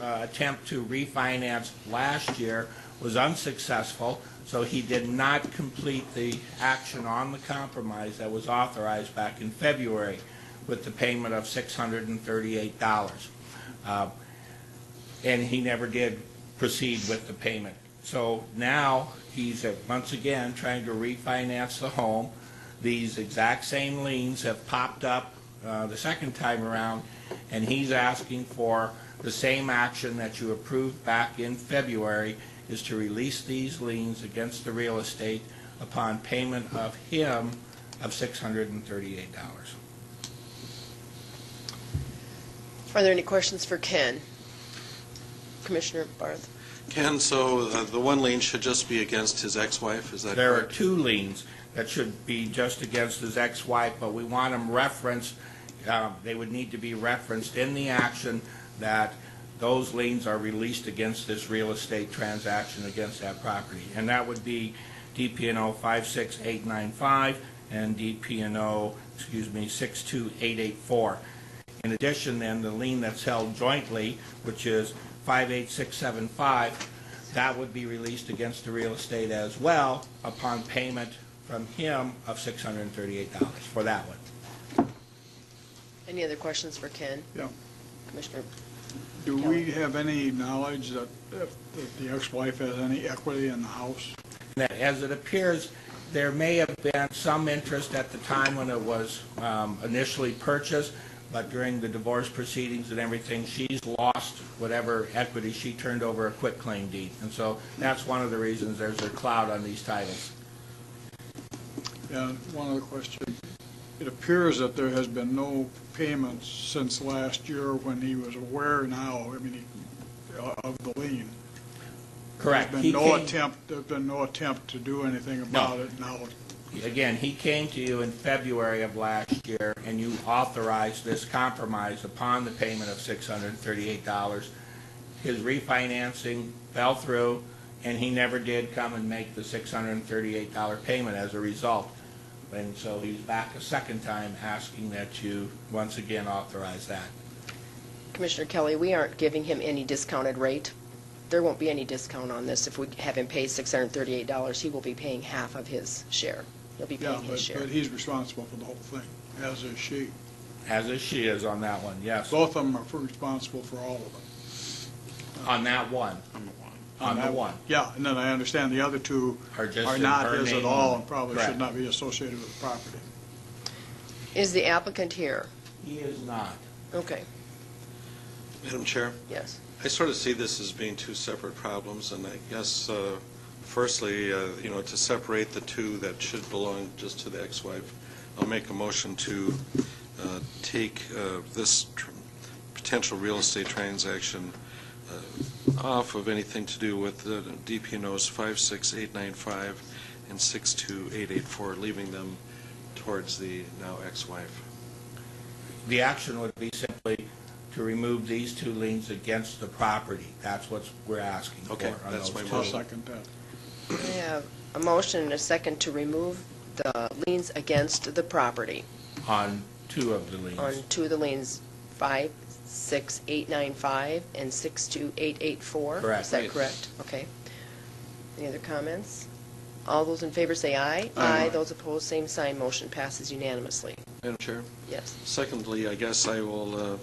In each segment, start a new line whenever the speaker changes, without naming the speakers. uh, attempt to refinance last year was unsuccessful, so he did not complete the action on the compromise that was authorized back in February with the payment of $638. Uh, And he never did proceed with the payment. So now, he's, uh, once again, trying to refinance the home. These exact same liens have popped up uh, the second time around, and he's asking for the same action that you approved back in February, is to release these liens against the real estate upon payment of him of $638.
Are there any questions for Ken? Commissioner Barth?
Ken, so uh, the one lien should just be against his ex-wife, is that
There are
correct?
two liens that should be just against his ex-wife, but we want them referenced, uh, they would need to be referenced in the action that those liens are released against this real estate transaction against that property. And that would be DPNO 56895 and DPNO, excuse me, 62884. In addition, then, the lien that's held jointly, which is 58675, that would be released against the real estate as well upon payment from him of $638 for that one.
Any other questions for Ken?
Yeah.
Commissioner,
Do we have any knowledge that if that the ex-wife has any equity in the house?
that, as it appears, there may have been some interest at the time when it was um, initially purchased, but during the divorce proceedings and everything, she's lost whatever equity she turned over a quitclaim deed. And so that's one of the reasons there's a cloud on these titles.
And one other question, it appears that there has been no payments since last year when he was aware now, I mean, he- of the lien.
Correct.
There's
He
been no
came-
attempt, there's been no attempt to do anything about it now.
Again, he came to you in February of last year, and you authorized this compromise upon the payment of $638. His refinancing fell through, and he never did come and make the $638 payment as a result. And so he's back a second time asking that you once again authorize that.
Commissioner Kelly, we aren't giving him any discounted rate. There won't be any discount on this. If we have him pay $638, he will be paying half of his share. He'll be
Yeah,
paying his
but,
share.
but he's responsible for the whole thing, as is she.
As is she is on that one, yes.
Both of them are responsible for all of it.
On that one. On the
that
one.
Yeah, and then I understand the other two
Are just
are
in
not
her
his at
name
all
only.
and probably
Correct.
should not be associated with the property.
Is the applicant here?
He is not.
Okay,
Madam Chair,
yes.
I sort of see this as being two separate problems, and I guess, uh, firstly, uh, you know, to separate the two that should belong just to the ex-wife, I'll make a motion to uh, take uh, this tr- potential real estate transaction uh, off of anything to do with uh, the DPNOs 56895 and 62884, leaving them towards the now ex-wife.
The action would be simply to remove these two liens against the property. That's what we're asking for.
Okay,
on
that's
those
my
two.
I'll
motion.
second that.
We have a motion and a second to remove the liens against the property
On two of the
on
liens.
two of the liens, 56895 and 62884.
Correct.
Is that
Yes.
correct? Okay. Any other comments? All those in favor say aye.
Aye.
Those opposed, same sign. Motion passes unanimously.
Madam Chair?
Yes.
Secondly, I guess I will uh,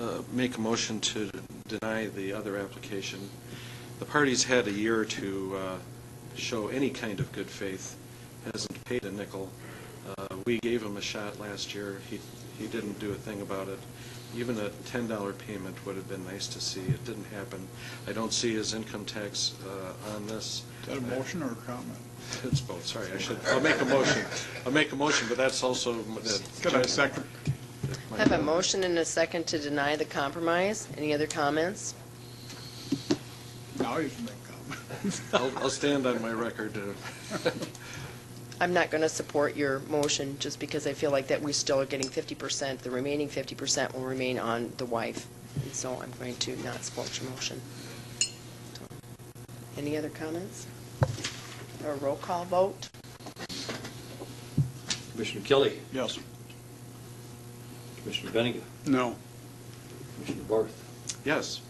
uh, make a motion to deny the other application. The parties had a year to uh, show any kind of good faith, hasn't paid a nickel. Uh, We gave him a shot last year, he he didn't do a thing about it. Even a $10 payment would have been nice to see, it didn't happen. I don't see his income tax uh, on this.
Is that a motion or a comment?
It's both, sorry, I should, I'll make a motion. I'll make a motion, but that's also...
Could I second?
I Have a motion and a second to deny the compromise. Any other comments?
Now you can make a comment.
Oh,
I'll, I'll stand on my record. uh,
I'm not going to support your motion just because I feel like that we still are getting 50%. The remaining 50% will remain on the wife, and so I'm going to not support your motion. So, Any other comments? A roll call vote?
Commissioner Kelly,
Yes.
Commissioner Bennigan,
No.
Commissioner Barth,
Yes,